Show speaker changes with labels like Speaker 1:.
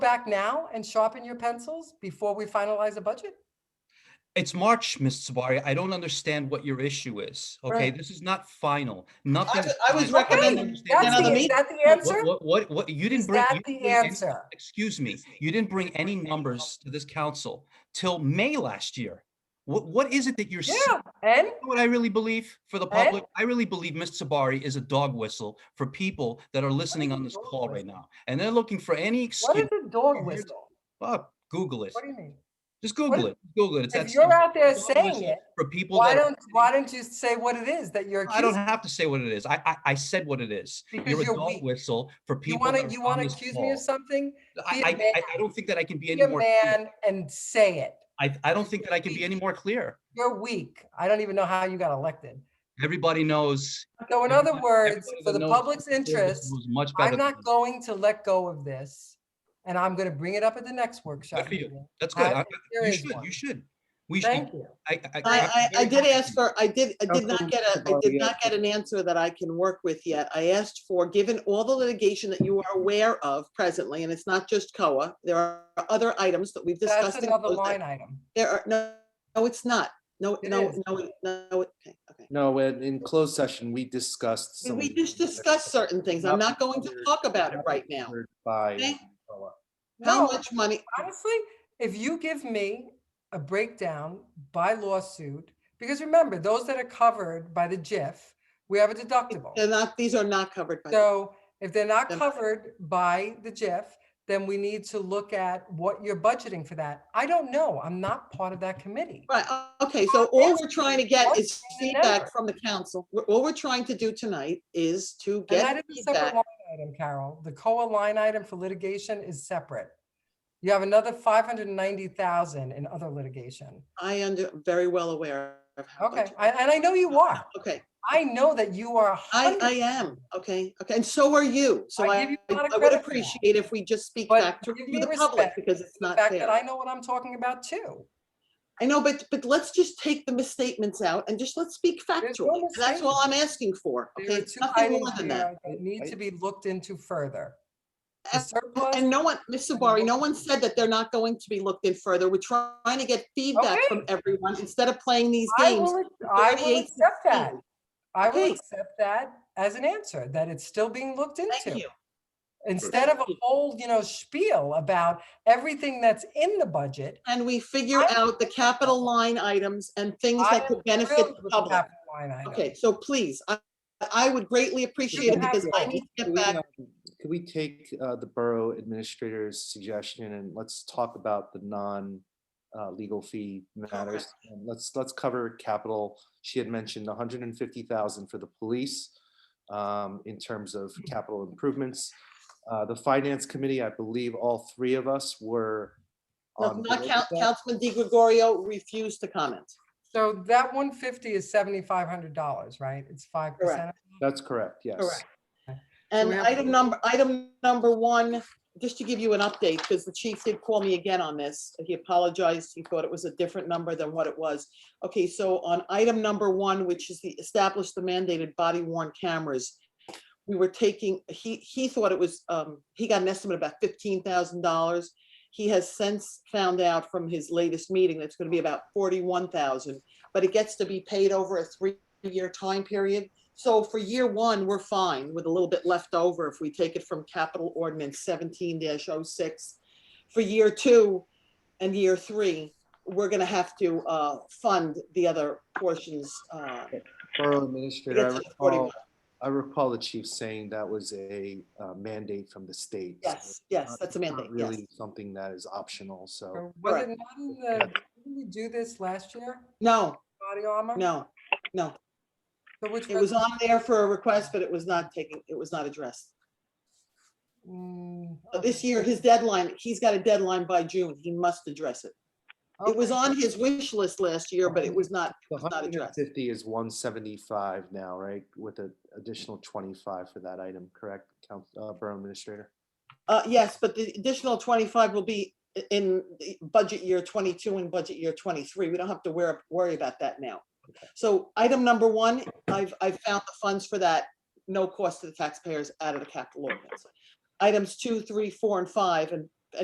Speaker 1: back now and sharpen your pencils before we finalize a budget?
Speaker 2: It's March, Ms. Sabari. I don't understand what your issue is. Okay,
Speaker 1: Right.
Speaker 2: this is not final. Nothing.
Speaker 3: was- I was
Speaker 2: final. I
Speaker 3: recommending
Speaker 1: Okay,
Speaker 2: understand
Speaker 1: that's
Speaker 2: that.
Speaker 3: another
Speaker 1: the, is
Speaker 3: meeting.
Speaker 1: that the answer?
Speaker 2: What, what, what, you didn't
Speaker 1: Is
Speaker 2: bring. you
Speaker 1: that
Speaker 2: didn't
Speaker 1: the
Speaker 2: bring any-
Speaker 1: answer?
Speaker 2: Excuse me, you didn't bring any numbers to this council till May last year. What, what is it that you're?
Speaker 1: Yeah,
Speaker 2: seeking?
Speaker 1: and
Speaker 2: You know What I really believe for the
Speaker 1: Eh?
Speaker 2: public, I really believe Ms. Sabari is a dog whistle for people that are listening on this
Speaker 1: dog
Speaker 2: call right
Speaker 1: whistle?
Speaker 2: now. And they're looking for any
Speaker 1: what is
Speaker 2: excuse.
Speaker 1: a dog
Speaker 2: Here's-
Speaker 1: whistle?
Speaker 2: Fuck, Google it.
Speaker 1: What do you mean?
Speaker 2: Just Google
Speaker 1: is-
Speaker 2: it. Google it. It's that
Speaker 1: If you're
Speaker 2: simple.
Speaker 1: out there
Speaker 2: Dog
Speaker 1: saying
Speaker 2: whistle
Speaker 1: it,
Speaker 2: For people
Speaker 1: why
Speaker 2: that are
Speaker 1: don't, why don't you say what it is that you're
Speaker 2: I don't
Speaker 1: accusing?
Speaker 2: have to say what it is. I, I, I said what it is.
Speaker 1: Because
Speaker 2: You're a
Speaker 1: you're
Speaker 2: dog
Speaker 1: weak.
Speaker 2: whistle for
Speaker 1: You
Speaker 2: people.
Speaker 1: want
Speaker 2: that
Speaker 1: to,
Speaker 2: are
Speaker 1: you
Speaker 2: on
Speaker 1: want to
Speaker 2: this
Speaker 1: accuse me of
Speaker 2: call.
Speaker 1: something?
Speaker 2: I,
Speaker 1: Be a
Speaker 2: I- I, I
Speaker 1: man.
Speaker 2: don't think that I can be
Speaker 1: Be
Speaker 2: any
Speaker 1: a
Speaker 2: more, clear.
Speaker 1: man and say it.
Speaker 2: I, I don't think that I can be
Speaker 1: Be-
Speaker 2: any more clear.
Speaker 1: You're weak. I don't even know how you got elected.
Speaker 2: Everybody knows.
Speaker 1: So in other
Speaker 2: Everybody-
Speaker 1: words,
Speaker 2: everybody
Speaker 1: for
Speaker 2: that
Speaker 1: the
Speaker 2: knows
Speaker 1: public's
Speaker 2: this
Speaker 1: interest,
Speaker 2: was Much better.
Speaker 1: I'm not going to let go of this. And I'm going to bring it up at the next workshop.
Speaker 2: for you.
Speaker 1: meeting.
Speaker 2: That's good.
Speaker 1: I
Speaker 2: I-
Speaker 1: think there
Speaker 2: You
Speaker 1: is
Speaker 2: should,
Speaker 1: one.
Speaker 2: you should. We should.
Speaker 1: Thank you.
Speaker 2: I, I.
Speaker 3: I,
Speaker 2: I'm
Speaker 3: I, I
Speaker 2: very
Speaker 3: did
Speaker 2: happy.
Speaker 3: ask for, I did, I did not
Speaker 4: Councilwoman
Speaker 3: get a, I
Speaker 4: Savari,
Speaker 3: did
Speaker 4: yes,
Speaker 3: not get an answer that I can work with yet. I asked for, given all the litigation that you are aware of presently, and it's not just COA, there are other items that we've
Speaker 1: That's
Speaker 3: discussed. in
Speaker 1: another
Speaker 3: closed session.
Speaker 1: line item.
Speaker 3: There are, no, no, it's not. No,
Speaker 1: It
Speaker 3: no,
Speaker 1: is.
Speaker 3: no, it- no, it- okay, okay.
Speaker 4: No, in in closed session, we discussed. some
Speaker 3: We
Speaker 4: of
Speaker 3: just
Speaker 4: the-
Speaker 3: discussed certain things. I'm not going to talk about it right now.
Speaker 4: covered By.
Speaker 3: Okay. How
Speaker 1: No,
Speaker 3: much money,
Speaker 1: honestly, if you give me a breakdown by lawsuit, because remember, those that are covered by the GIF, we have a deductible.
Speaker 3: they're not, these are not covered by. the-
Speaker 1: So if they're not
Speaker 3: Then-
Speaker 1: covered by the GIF, then we need to look at what you're budgeting for that. I don't know. I'm not part of that committee.
Speaker 3: Right, o- okay, so
Speaker 1: Well,
Speaker 3: all
Speaker 1: it's
Speaker 3: we're trying to get
Speaker 1: one
Speaker 3: is
Speaker 1: thing and another.
Speaker 3: feedback from the council. We're- All we're trying to do tonight is to
Speaker 1: And that
Speaker 3: get
Speaker 1: is a separate
Speaker 3: feedback.
Speaker 1: line item, Carol. The COA line item for litigation is separate. You have another 590,000 in other litigation.
Speaker 3: I am very well aware of how
Speaker 1: Okay,
Speaker 3: much.
Speaker 1: I- and I know you are.
Speaker 3: Okay,
Speaker 1: I know that you are a
Speaker 3: I, I
Speaker 1: hundred,
Speaker 3: am, okay, okay, and so are you. So
Speaker 1: I
Speaker 3: I,
Speaker 1: give you a lot of
Speaker 3: I would
Speaker 1: credit for that.
Speaker 3: appreciate if we just speak
Speaker 1: But
Speaker 3: back to
Speaker 1: give
Speaker 3: to
Speaker 1: me
Speaker 3: the public
Speaker 1: respect
Speaker 3: because it's
Speaker 1: the
Speaker 3: not
Speaker 1: fact that I
Speaker 3: fair.
Speaker 1: know what I'm talking about too.
Speaker 3: I know, but, but let's just take the misstatements out and just let's speak
Speaker 1: no
Speaker 3: factually. That's all I'm asking for,
Speaker 1: There
Speaker 3: okay?
Speaker 1: are
Speaker 3: It's
Speaker 1: two
Speaker 3: nothing
Speaker 1: items
Speaker 3: more than that.
Speaker 1: here that need to be looked into further. The
Speaker 3: And-
Speaker 1: surplus-
Speaker 3: And no one, Ms. Sabari, no one said that they're not going to be looked in further. We're trying to get feedback from everyone instead of playing these
Speaker 1: I
Speaker 3: games.
Speaker 1: will, I will
Speaker 3: 38
Speaker 1: accept that. I will
Speaker 3: Okay.
Speaker 1: accept that as an answer, that it's still being looked
Speaker 3: Thank
Speaker 1: into.
Speaker 3: you.
Speaker 1: Instead of a whole, you know, spiel about everything that's in the budget.
Speaker 3: And we figure
Speaker 1: I-
Speaker 3: out the capital line items and things
Speaker 1: I
Speaker 3: that could
Speaker 1: am
Speaker 3: benefit
Speaker 1: thrilled
Speaker 3: the
Speaker 1: with
Speaker 3: public.
Speaker 1: capital line item.
Speaker 3: Okay, so please, I, I would greatly appreciate
Speaker 4: can
Speaker 3: it because
Speaker 1: have
Speaker 3: I
Speaker 1: your-
Speaker 3: need to
Speaker 4: Could
Speaker 3: get
Speaker 4: we,
Speaker 3: back.
Speaker 4: um, could we take uh, the borough administrator's suggestion and let's talk about the non uh, legal fee matters? And Let's, let's cover capital. She had mentioned hundred and fifty thousand for the police um, in terms of capital improvements. Uh, The finance committee, I believe all three of us were
Speaker 3: No,
Speaker 4: on. board
Speaker 3: Not
Speaker 4: with
Speaker 3: Coun-
Speaker 4: that.
Speaker 3: Councilman Di Gregorio refused to comment.
Speaker 1: So that one fifty is seventy-five hundred dollars, right? It's five percent.
Speaker 4: That's correct, yes.
Speaker 3: Correct.
Speaker 1: So
Speaker 3: And
Speaker 1: we have-
Speaker 3: item number, item number one, just to give you an update, because the chief did call me again on this. He apologized. He thought it was a different number than what it was. Okay, so on item number one, which is the establish the mandated body worn cameras. We were taking, he, he thought it was, um, he got an estimate about fifteen thousand dollars. He has since found out from his latest meeting that's gonna be about forty-one thousand, but it gets to be paid over a three-year time period. So for year one, we're fine with a little bit left over if we take it from capital ordinance seventeen 6 For year two and year three, we're gonna have to uh fund the other portions. uh,
Speaker 4: Borough administrator, I
Speaker 3: It's like 41.
Speaker 4: recall, I recall the chief saying that was a uh, mandate from the state. so
Speaker 3: Yes, yes,
Speaker 4: not-
Speaker 3: that's a
Speaker 4: it's not
Speaker 3: mandate, yes.
Speaker 4: Really something that is optional, so.
Speaker 1: So Was it
Speaker 3: Correct.
Speaker 1: not in the, didn't we do this last year,
Speaker 3: No,
Speaker 1: body armor?
Speaker 3: no, no.
Speaker 1: So which
Speaker 3: It was
Speaker 1: resolution?
Speaker 3: on there for a request, but it was not taken, it was not addressed.
Speaker 1: Mm,
Speaker 3: But This
Speaker 1: okay.
Speaker 3: year, his deadline, he's got a deadline by June. He must address it. It was
Speaker 1: Okay.
Speaker 3: on his wish list last year, but it was not,
Speaker 4: The
Speaker 3: was not addressed.
Speaker 4: 150 is 175 now, right, with an additional 25 for that item, correct, Council, uh, Borough Administrator?
Speaker 3: Uh, yes, but the additional twenty-five will be i- in the budget year twenty-two and budget year twenty-three. We don't have to worry, worry about that now. So item number one, I've, I've found the funds for that, no cost to the taxpayers out of the capital ordinance. Items two, three, four, and five, and